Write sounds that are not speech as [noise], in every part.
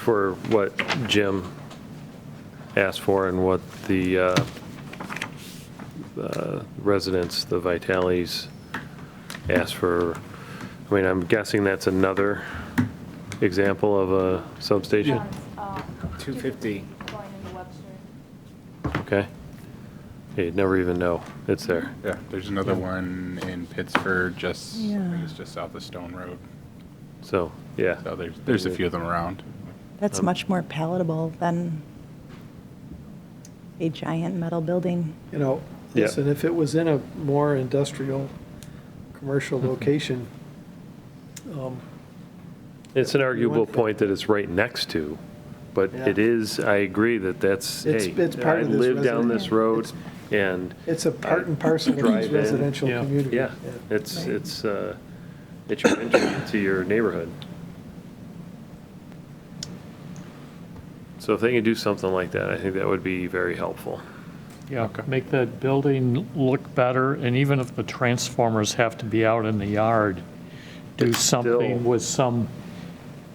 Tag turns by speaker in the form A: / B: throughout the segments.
A: for what Jim asked for and what the uh, uh, residents, the Vitales, asked for. I mean, I'm guessing that's another example of a substation,
B: Two fifty.
C: um, Going into Webster.
A: okay? You'd never even know, it's there.
D: Yeah, there's another one in Pittsburgh, just, I think
E: Yeah.
D: it's just south of Stone Road.
A: So, yeah.
D: So there's, there's a few of them around.
E: That's
A: Um,
E: much more palatable than a giant metal building.
F: you know,
A: Yeah.
F: listen, if it was in a more industrial,
G: Mm-hmm.
F: commercial location, um,
A: It's an arguable point that it's right next to, but it
F: Yeah.
A: is, I agree that that's,
F: It's-
A: hey,
F: it's part
A: I
F: of this
A: live down
F: resident-
A: this road, and,
F: it's a part and parcel of
A: Drive
F: each
A: in,
F: residential
A: yeah.
F: community.
A: yeah, it's, it's, uh, it's your entry into your neighborhood. So if they can do something like that, I think that would be very helpful.
G: Yeah,
D: Okay.
G: make that building look better, and even if the transformers have to be out in the yard, do
A: It's still-
G: something with some,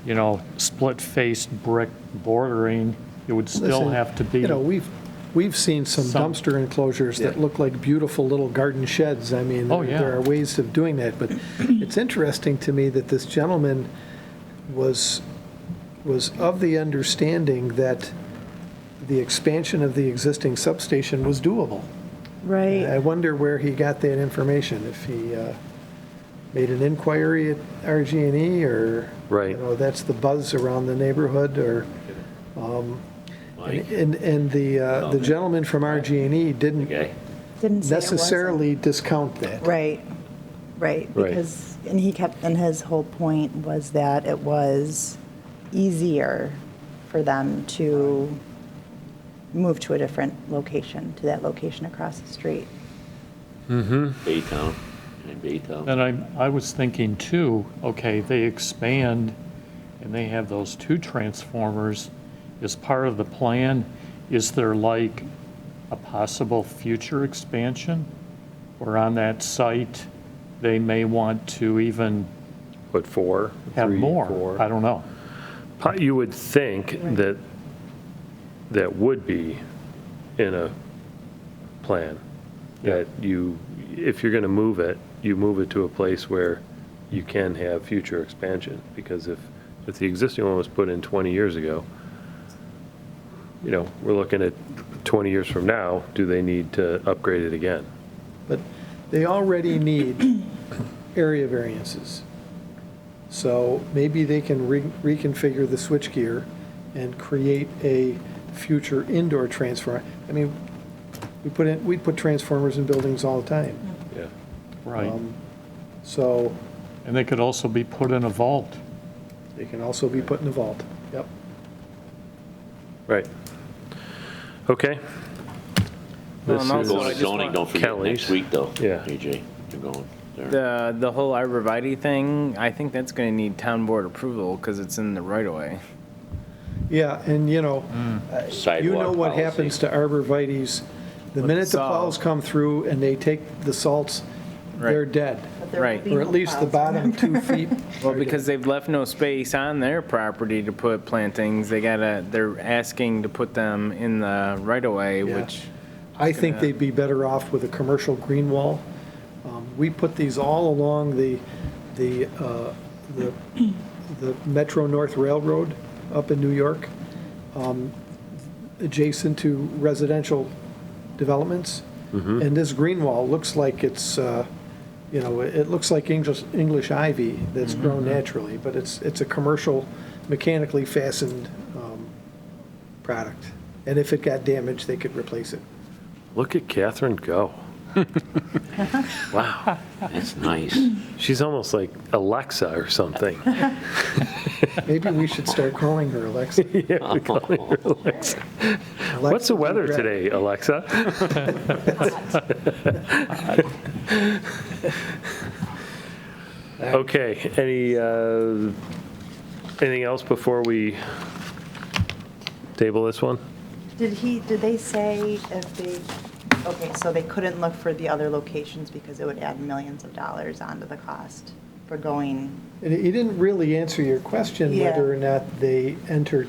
G: you know, split-faced brick bordering, it would still
F: Listen,
G: have to be.
F: You know, we've, we've seen some
G: Some-
F: dumpster enclosures that
A: Yeah.
F: look like beautiful little garden sheds. I mean,
G: Oh,
F: there-
G: yeah.
F: there are ways of doing that, but it's interesting to me that this gentleman was, was of the understanding that the expansion of the existing substation was doable. I
E: Right.
F: wonder where he got that information, if he uh, made an inquiry at RG&E, E or,
A: Right.
F: you know, that's the buzz around the neighborhood, or, um, and, and the uh, the gentleman from RG&E E didn't
E: Didn't say it wasn't.
F: necessarily discount that.
E: Right, right.
A: Right.
E: Because, and he kept, and his whole point was that it was easier for them to move to a different location, to that location across the street.
H: Baytown, in Baytown.
G: And I, I was thinking too, okay, they expand and they have those two transformers. As part of the plan, is there like a possible future expansion? Or on that site, they may want to even
A: But four,
G: have
A: three,
G: more?
A: four. Um,
G: I don't know.
A: Po- You would think that that would be in a plan, that you, if you're going to move it, you move it to a place where you can have future expansion, because if, if the existing one was put in 20 years ago, you know, we're looking at 20 years from now, do they need to upgrade it again?
F: But they already need area variances. So maybe they can re- reconfigure the switchgear and create a future indoor transformer. I mean, we put in, we put transformers in buildings all the time.
A: Yeah.
G: Right.
F: Um, So
G: And they could also be put in a vault.
F: they can also be put in the vault. Yep.
A: Right. Okay,
B: Well,
A: This
B: and
A: is-
B: also, I
H: Going to
B: just
H: zoning,
B: want,
H: don't forget,
A: Kelly's.
H: next week though.
A: Yeah.
H: AJ, you're going there.
B: the, the whole arborvitae thing, I think that's gonna need town board approval, cause it's in the right of way.
F: Yeah, and you know, uh, you know
H: Mm. Sidewalk
F: what
H: policy.
F: happens to arborvitae's. The minute the
B: salt.
F: plows come through and they take the salts, they're
B: Right.
F: dead.
E: But there
B: Right.
E: would be
F: Or at
E: no
F: least the
E: clouds.
F: bottom two feet.
B: Well, because they've left no space on their property to put plantings, they gotta, they're asking to put them in the right of way,
F: Yeah.
B: which,
F: I think they'd be better off with a commercial green wall. Um, We put these all along the, the, uh, the the Metro North Railroad up in New York, um, adjacent to residential developments.
B: Mm-hmm.
F: And this green wall looks like it's, uh, you know, it it looks like English, English ivy that's
B: Mm-hmm.
F: grown naturally, but it's, it's a commercial mechanically fastened um, product. And if it got damaged, they could replace it.
A: look at Catherine go. Wow.
H: That's nice.
A: She's almost like Alexa or something. [laughs]
F: Maybe we should start calling
A: [laughs]
F: her Alexa. [laughs]
A: What's
F: Alexa,
A: the weather
F: regret.
A: today, Alexa? Okay, any, uh, anything else before we table this one?
E: Did he, did they say if they, okay, so they couldn't look for the other locations because it would add millions of dollars onto the cost for going
F: And he didn't really answer your question
E: Yeah.
F: whether or not they entered